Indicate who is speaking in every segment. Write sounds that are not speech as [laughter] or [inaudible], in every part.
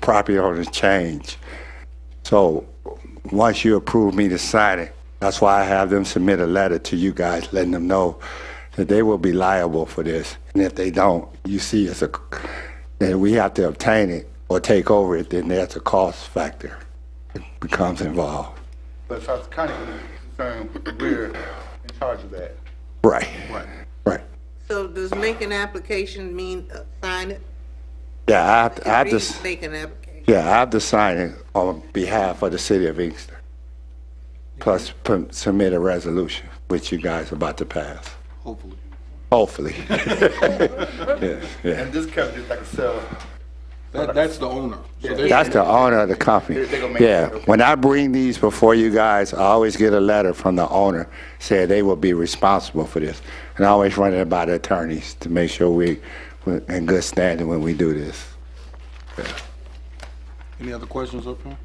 Speaker 1: property owner change. So once you approve me to sign it, that's why I have them submit a letter to you guys letting them know that they will be liable for this. And if they don't, you see it's a, then we have to obtain it or take over it, then that's a cost factor that becomes involved.
Speaker 2: But as far as the county is concerned, we're in charge of that.
Speaker 1: Right,
Speaker 2: Right.
Speaker 1: right.
Speaker 3: So does make an application mean uh, sign it?
Speaker 1: Yeah, I have, to- I have to, s-
Speaker 3: Make an application.
Speaker 1: yeah, I have to sign it on behalf of the city of Inkster. Plus pu- submit a resolution, which you guys are about to pass,
Speaker 2: Hopefully.
Speaker 1: hopefully. [laughs] Yeah, yeah.
Speaker 2: And this company is like a cell.
Speaker 4: That, that's the owner. So they-
Speaker 1: That's the owner of the company.
Speaker 2: They gonna make it,
Speaker 1: Yeah,
Speaker 2: okay.
Speaker 1: when I bring these before you guys, I always get a letter from the owner saying they will be responsible for this. And I always run it by the attorneys to make sure we, we're in good standing when we do this.
Speaker 4: Any other questions up here?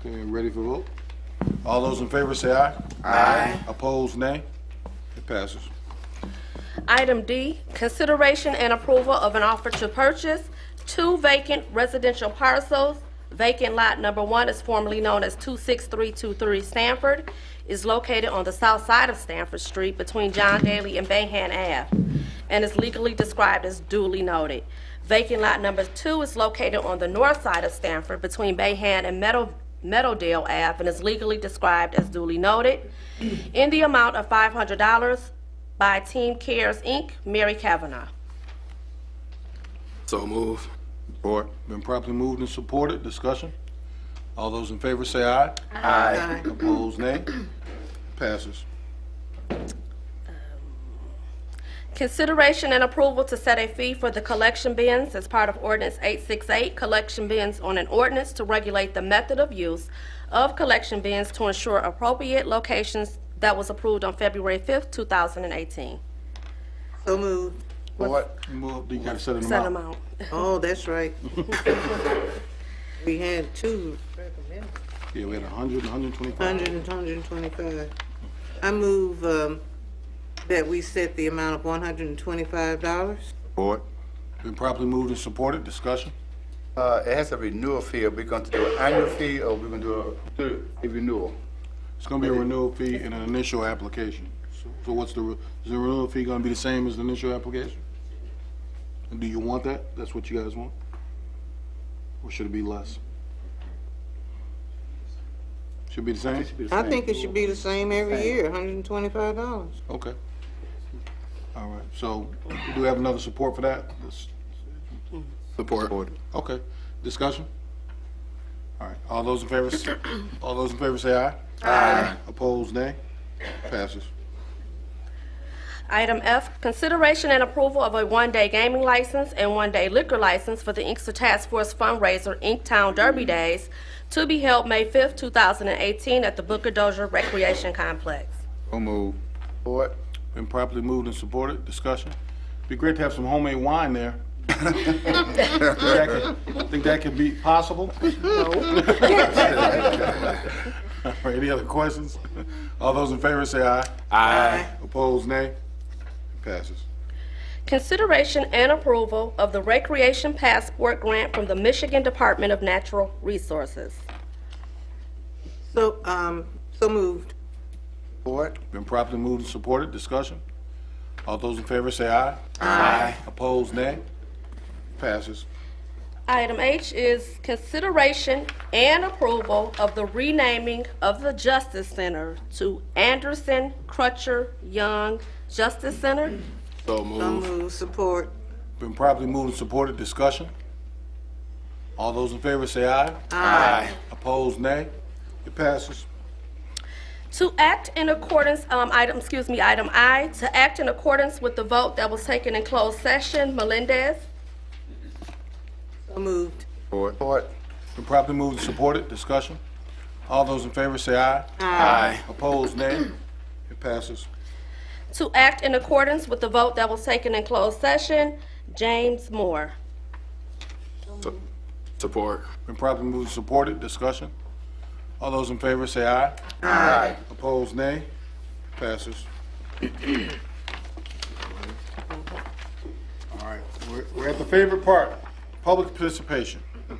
Speaker 4: Okay, ready for vote? All those in favor say aye. Aye. Opposed, nay. It passes.
Speaker 5: Item D, consideration and approval of an offer to purchase two vacant residential parcels. Vacant lot number one is formerly known as 26323 Stanford, is located on the south side of Stanford Street between John Daly and Bayhand Ave, and is legally described as duly noted. Vacant lot number two is located on the north side of Stanford between Bayhand and Meadow Meadowdale Ave, and is legally described as duly noted in the amount of $500 by Team Cares, Inc., Mary Kavanaugh.
Speaker 4: So move. Support. Been properly moved and supported. Discussion? All those in favor say aye.
Speaker 3: Uh,
Speaker 4: Aye. Opposed, nay. Passes.
Speaker 5: Consideration and approval to set a fee for the collection bins as part of ordinance 868, collection bins on an ordinance to regulate the method of use of collection bins to ensure appropriate locations that was approved on February 5th, 2018.
Speaker 3: So move.
Speaker 4: What? You moved, you gotta set an
Speaker 5: Set
Speaker 4: amount.
Speaker 5: amount.
Speaker 3: Oh, that's
Speaker 4: [laughs]
Speaker 3: right. We had two,
Speaker 4: Yeah, we had a hundred, a hundred and twenty-five.
Speaker 3: hundred and hundred and twenty-five. I move, um, that we set the amount of one hundred and twenty-five dollars.
Speaker 4: Support. Been properly moved and supported. Discussion?
Speaker 2: Uh, it has a renewal fee. Are we going to do an annual fee or we are going to do a, do a renewal?
Speaker 4: It's gonna be a renewal fee and an initial application. So- So what's the, re- is the renewal fee gonna be the same as the initial application? And do you want that? That's what you guys want? Or should it be less? Should be the same?
Speaker 3: I think it should be the same every year, hundred and twenty-five dollars.
Speaker 4: Okay. All right, so we do have another support for that? Support. Okay, discussion? All right, all those in favor, s- all those in favor say aye. Aye. Opposed, nay? Passes.
Speaker 5: Item F, consideration and approval of a one-day gaming license and one-day liquor license for the Inkster Task Force fundraiser Inktown Derby Days to be held May 5th, 2018 at the Booker Dozier Recreation Complex.
Speaker 4: So moved.
Speaker 2: Board?
Speaker 4: Been properly moved and supported, discussion. Be great to have some homemade wine there. Think that could- Think that could be possible? All right, [laughs] Any other questions? All those in favor say aye. Aye. Opposed, nay? Passes.
Speaker 5: Consideration and approval of the Recreation Passport Grant from the Michigan Department of Natural Resources.
Speaker 3: So, um, so moved.
Speaker 2: Board?
Speaker 4: Been properly moved and supported, discussion. All those in favor say aye. Aye. Opposed, nay? Passes.
Speaker 5: Item H is consideration and approval of the renaming of the Justice Center to Anderson Crutcher Young Justice Center.
Speaker 4: So
Speaker 3: So
Speaker 4: moved.
Speaker 3: moved, support.
Speaker 4: Been properly moved and supported, discussion. All those in favor say aye. Aye. Opposed, nay. It passes.
Speaker 5: To act in accordance, um, item, excuse me, item I, to act in accordance with the vote that was taken in closed session, Melendez.
Speaker 3: So moved.
Speaker 2: Board. Board?
Speaker 4: Been properly moved and supported, discussion. All those in favor say aye. Aye. Opposed, nay. It passes.
Speaker 5: To act in accordance with the vote that was taken in closed session, James Moore.
Speaker 6: Support.
Speaker 4: Been properly moved and supported, discussion. All those in favor say aye. Aye. Opposed, nay. Passes. All right, we're- we're at the favorite part, public participation.